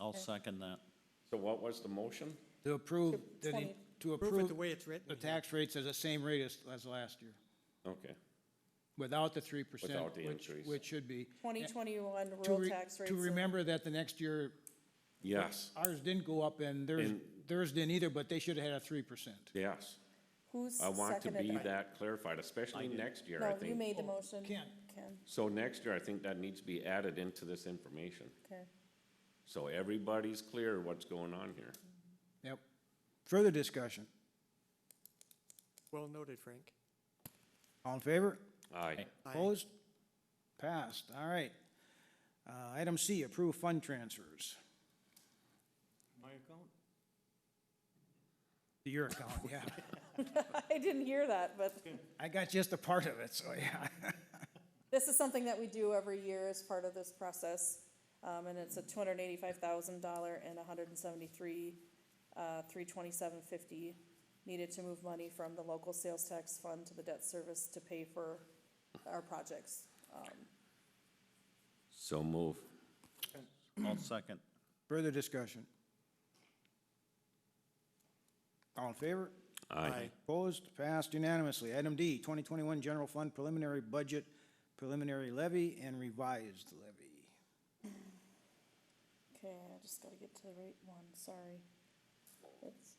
I'll second that. So what was the motion? To approve, To the- 20. to Prove it approve the way it's written. the here. tax rates as the same rate as, as last year, Okay, without the three percent, Without the which, increase. which should be. Twenty twenty-one To rural re- tax rates. To of- remember that the next year, yes, ours didn't go up and theirs, And- theirs didn't either, but they should have had a three percent. yes. Who's I want to seconded be that? that clarified, especially next year, I No, you think. made the motion. Ken. Ken, So next year, I think that needs to be added into this information. okay. So everybody's clear what's going on here. Yep. Further discussion? Well noted, Frank. All in favor? Aye. Aye. Opposed? Passed, all right. Uh, item C, approve fund transfers. My account? Your account, yeah. I didn't hear that, but I got just a part of it, so yeah. this is something that we do every year as part of this process. Um, and it's a two hundred and eighty-five thousand dollar and hundred and seventy-three, uh, three twenty-seven fifty needed to move money from the local sales tax fund to the debt service to pay for our projects. Um, So move. I'll second. Further discussion? All in favor? Aye. Opposed? Passed unanimously. Item D, 2021 General Fund Preliminary Budget, Preliminary Levy, and Revised Levy. Okay, I just gotta get to the right one, sorry. It's-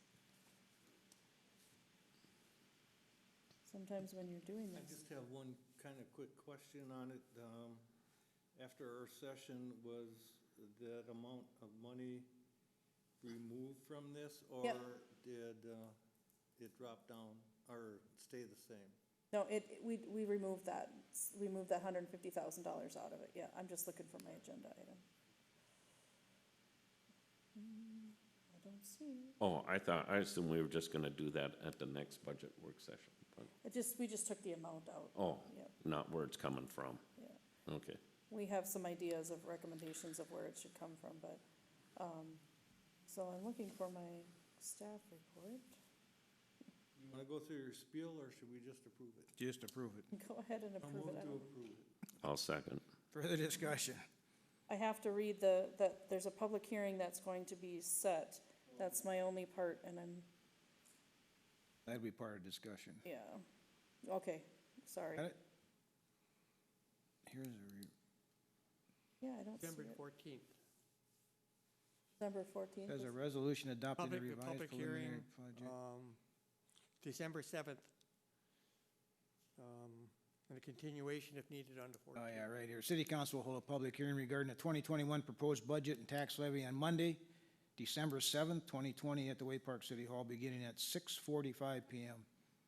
Sometimes when you're doing I this, just have one kind of quick question on it. Um, After our session, was that amount of money removed from this? Yep. Or did uh, it drop down or stay the same? no, it, it- we, we removed that, s- we moved that hundred and fifty thousand dollars out of it, yeah, I'm just looking for my agenda item. Mm, I don't see, Oh, I thought, I assumed we were just gonna do that at the next budget work session. but- it just, we just took the amount out, Oh, Yep. not where it's coming from. yeah. Okay. we have some ideas of recommendations of where it should come from, but, um, so I'm looking for my staff report. You want to go through your spiel or should we just approve it? Just approve it. Go ahead and I'll approve it. move I to don't- approve it. I'll second. Further discussion? I have to read the, that there's a public hearing that's going to be set. That's my only part, and I'm, That'd be part of discussion. yeah, okay, sorry. Got it? Here's a, re- Yeah, I don't see September it. fourteenth. Number fourteen, there's a resolution adopting the Public, a revised public preliminary hearing, budget. um, December seventh. Um, and a continuation if needed on the Oh, fourteenth. yeah, right here. City Council will hold a public hearing regarding the twenty twenty-one proposed budget and tax levy on Monday, December seventh, twenty twenty, at the Way Park City Hall, beginning at six forty-five PM.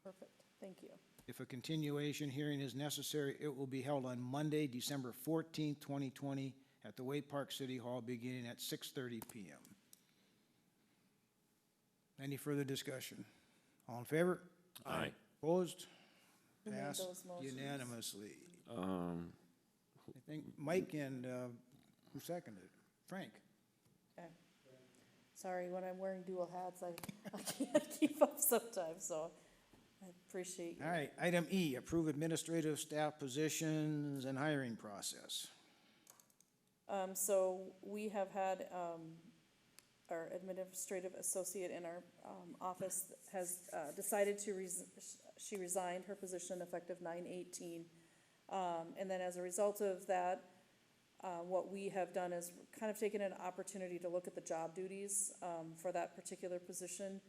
perfect, thank you. If a continuation hearing is necessary, it will be held on Monday, December fourteenth, twenty twenty, at the Way Park City Hall, beginning at six thirty PM. Any further discussion? All in favor? Aye. Opposed? Who made Passed those motions? unanimously. Um, I think Mike and, uh, who seconded it? Frank. Okay. Sorry, when I'm wearing dual hats, I, I can't keep up sometimes, so I appreciate you. All right, item E, approve administrative staff positions and hiring process. Um, so we have had, um, our administrative associate in our, um, office has, uh, decided to res- she resigned her position effective nine eighteen. Um, and then as a result of that, uh, what we have done is kind of taken an opportunity to look at the job duties, um, for that particular position,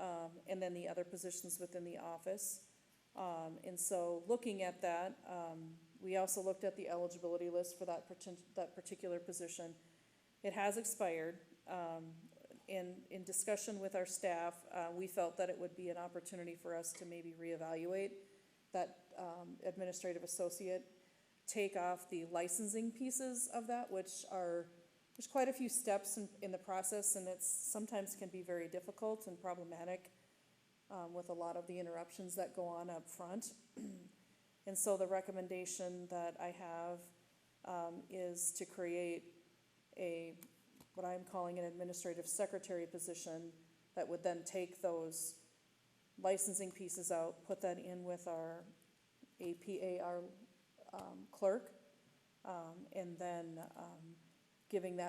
um, and then the other positions within the office. Um, and so looking at that, um, we also looked at the eligibility list for that partic- that particular position. It has expired. Um, in, in discussion with our staff, uh, we felt that it would be an opportunity for us to maybe reevaluate that, um, administrative associate, take off the licensing pieces of that, which are, there's quite a few steps in, in the process, and it's, sometimes can be very difficult and problematic um, with a lot of the interruptions that go on up front. And so the recommendation that I have, um, is to create a, what I'm calling an administrative secretary position that would then take those licensing pieces out, put that in with our APAR um, clerk, um, and then, um, giving that